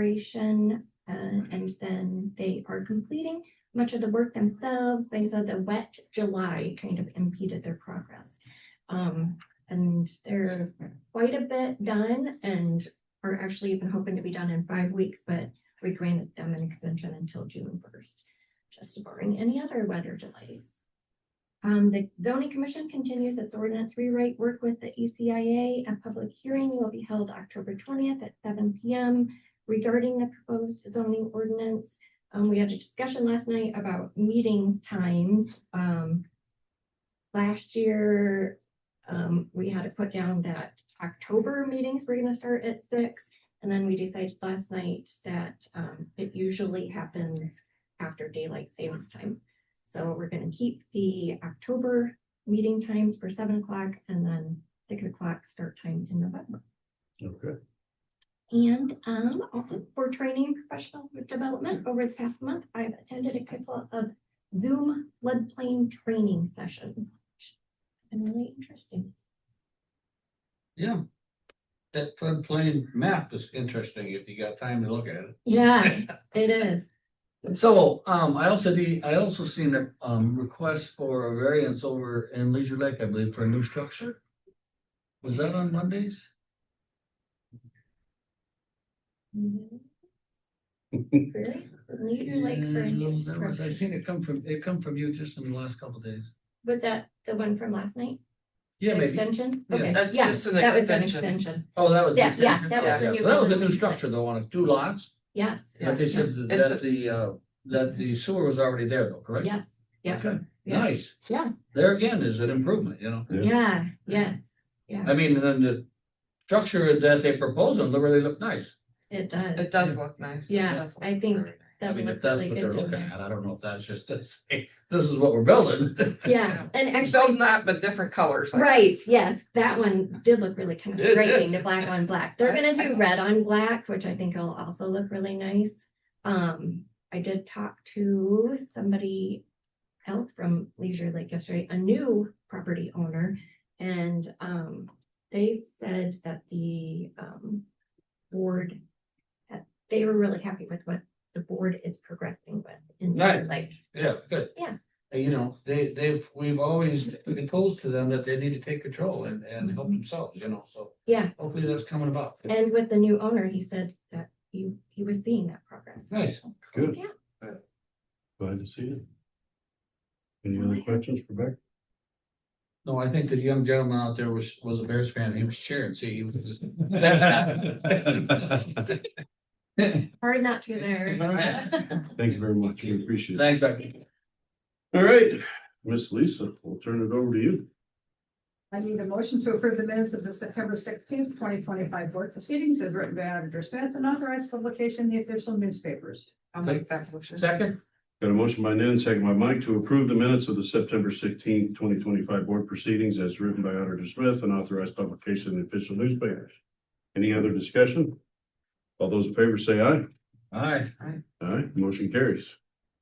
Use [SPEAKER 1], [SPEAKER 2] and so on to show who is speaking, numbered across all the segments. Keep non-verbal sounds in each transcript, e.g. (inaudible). [SPEAKER 1] expiration, uh, and then they are completing much of the work themselves. They said the wet July kind of impeded their progress. Um, and they're quite a bit done and are actually even hoping to be done in five weeks, but we granted them an extension until June first, just barring any other weather delays. Um, the zoning commission continues its ordinance rewrite work with the ECIA. A public hearing will be held October twentieth at seven P M regarding the proposed zoning ordinance. Um, we had a discussion last night about meeting times. Um, last year, um, we had to put down that October meetings were gonna start at six. And then we decided last night that, um, it usually happens after daylight savings time. So we're gonna keep the October meeting times for seven o'clock and then six o'clock start time in November.
[SPEAKER 2] Okay,
[SPEAKER 1] And um also for training and professional development over the past month, I've attended a couple of Zoom floodplain training sessions. which have Been really interesting.
[SPEAKER 3] Yeah. That floodplain map is interesting if you got time to look at it.
[SPEAKER 1] (laughs) Yeah, it is.
[SPEAKER 3] So, um, I also did, I also seen a, um, request for a variance over in Leisure Lake, I believe, for a new structure. Was that on Mondays?
[SPEAKER 1] Really? Leader like for a
[SPEAKER 3] No,
[SPEAKER 1] new
[SPEAKER 3] that was- I seen
[SPEAKER 1] structure.
[SPEAKER 3] it come from, it come from you just in the last couple days.
[SPEAKER 1] Was that the one from last night?
[SPEAKER 3] Yeah, maybe.
[SPEAKER 1] Extension?
[SPEAKER 3] Yeah.
[SPEAKER 1] Okay,
[SPEAKER 4] That's
[SPEAKER 1] yeah,
[SPEAKER 4] just an
[SPEAKER 1] that would be an
[SPEAKER 4] extension.
[SPEAKER 1] extension.
[SPEAKER 3] Oh, that was. the
[SPEAKER 1] Yeah, yeah,
[SPEAKER 3] extension?
[SPEAKER 1] that was
[SPEAKER 3] Yeah,
[SPEAKER 1] the
[SPEAKER 3] yeah.
[SPEAKER 1] new
[SPEAKER 3] That was a new
[SPEAKER 1] building.
[SPEAKER 3] structure, though, on two lots,
[SPEAKER 1] Yes.
[SPEAKER 3] but they said
[SPEAKER 4] It's
[SPEAKER 3] that the, uh, that the sewer was already there though, correct?
[SPEAKER 1] Yeah, yeah.
[SPEAKER 3] Okay,
[SPEAKER 1] Yeah.
[SPEAKER 3] nice.
[SPEAKER 1] Yeah.
[SPEAKER 3] There again is an improvement, you know?
[SPEAKER 2] Yeah.
[SPEAKER 1] Yeah, yes,
[SPEAKER 3] I mean, and then the structure that they propose on really look nice.
[SPEAKER 1] it does.
[SPEAKER 4] It does look nice. It
[SPEAKER 1] Yeah,
[SPEAKER 4] does look
[SPEAKER 1] I think
[SPEAKER 4] very nice.
[SPEAKER 3] I
[SPEAKER 1] That
[SPEAKER 3] mean, if
[SPEAKER 1] looked
[SPEAKER 3] that's
[SPEAKER 1] really
[SPEAKER 3] what
[SPEAKER 1] good
[SPEAKER 3] they're
[SPEAKER 1] to me.
[SPEAKER 3] looking at, I don't know if that's just, to say, this is what we're building. (laughs)
[SPEAKER 1] Yeah, and
[SPEAKER 4] It's
[SPEAKER 1] actually.
[SPEAKER 4] still not, but different colors. I
[SPEAKER 1] Right,
[SPEAKER 4] guess.
[SPEAKER 1] yes, that one did look really kind of
[SPEAKER 3] It
[SPEAKER 1] striking,
[SPEAKER 3] did.
[SPEAKER 1] the black on black. They're
[SPEAKER 4] I-
[SPEAKER 1] gonna
[SPEAKER 4] I
[SPEAKER 1] do
[SPEAKER 4] thought
[SPEAKER 1] red on black, which I think will also look really nice. Um, I did talk to somebody else from Leisure Lake yesterday, a new property owner. And um, they said that the um board, that they were really happy with what the board is progressing with in Leisure
[SPEAKER 3] Nice.
[SPEAKER 1] Lake.
[SPEAKER 3] Yeah, good.
[SPEAKER 1] Yeah.
[SPEAKER 3] Uh, You know, they, they've, we've always proposed to them that they need to take control and, and help themselves, you know, so
[SPEAKER 1] Mm-hmm. Yeah,
[SPEAKER 3] hopefully that's coming about.
[SPEAKER 1] and with the new owner, he said that he he was seeing that progress.
[SPEAKER 3] Nice.
[SPEAKER 2] good.
[SPEAKER 1] Yeah.
[SPEAKER 2] Glad to see you. Any
[SPEAKER 1] Oh,
[SPEAKER 2] other
[SPEAKER 1] yeah.
[SPEAKER 2] questions for Beck?
[SPEAKER 3] No, I think the young gentleman out there was, was a Bears fan. He was cheering, see, he was just. (laughs)
[SPEAKER 1] Hard not to there.
[SPEAKER 2] Thank you very much. We appreciate it.
[SPEAKER 3] Thanks, Becky.
[SPEAKER 2] All right, Miss Lisa, we'll turn it over to you.
[SPEAKER 5] I need a motion to approve the minutes of the September sixteenth, twenty twenty-five board proceedings as written by Auditor Smith and authorized publication in the official newspapers.
[SPEAKER 4] I'll make that motion.
[SPEAKER 3] Second?
[SPEAKER 2] Got a motion by Nan, second by Mike to approve the minutes of the September sixteenth, twenty twenty-five board proceedings as written by Auditor Smith and authorized publication in the official newspapers. Any other discussion? All those in favor say aye.
[SPEAKER 3] Aye.
[SPEAKER 2] Aye, motion carries.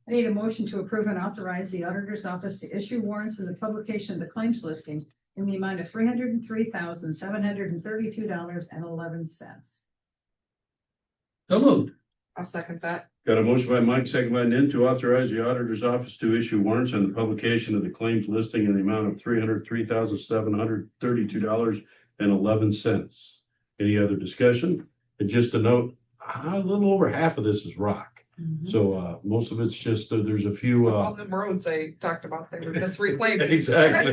[SPEAKER 5] I need a motion to approve and authorize the auditor's office to issue warrants in the publication of the claims listing in the amount of three hundred and three thousand, seven hundred and thirty-two dollars and eleven cents.
[SPEAKER 3] So moved.
[SPEAKER 4] I'll second that.
[SPEAKER 2] Got a motion by Mike, second by Nin to authorize the auditor's office to issue warrants on the publication of the claims listing in the amount of three hundred, three thousand, seven hundred, thirty-two dollars and eleven cents. Any other discussion? And just a note, a little over half of this is rock.
[SPEAKER 5] Mm-hmm.
[SPEAKER 2] So, uh, most of it's just, uh, there's a few, uh, (laughs)
[SPEAKER 4] All the roads I talked about, they were just reclaimed.
[SPEAKER 2] exactly.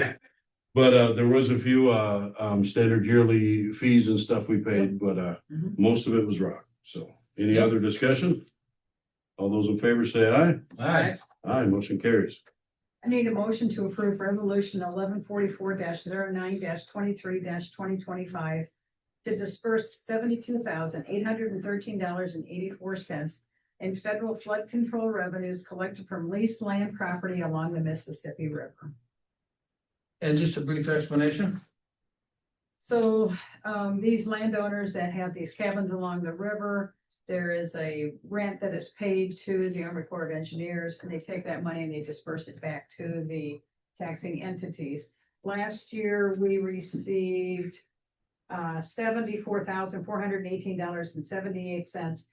[SPEAKER 2] But, uh, there was a few, uh, um, standard yearly fees and stuff we paid, but, uh,
[SPEAKER 4] Mhm.
[SPEAKER 2] most of it was rock. So any
[SPEAKER 3] Yep.
[SPEAKER 2] other discussion? All those in favor say aye.
[SPEAKER 3] Aye.
[SPEAKER 2] Aye, motion carries.
[SPEAKER 5] I need a motion to approve resolution eleven forty-four 9 twenty-three twenty twenty-five to disperse seventy-two thousand eight hundred and thirteen dollars and eighty-four cents in federal flood control revenues collected from leased land property along the Mississippi River.
[SPEAKER 3] And just a brief explanation?
[SPEAKER 5] So, um, these landowners that have these cabins along the river, there is a rent that is paid to the Army Corps of Engineers, and they take that money and they disperse it back to the taxing entities. Last year, we received uh, seventy-four thousand, four hundred and eighteen dollars and seventy-eight cents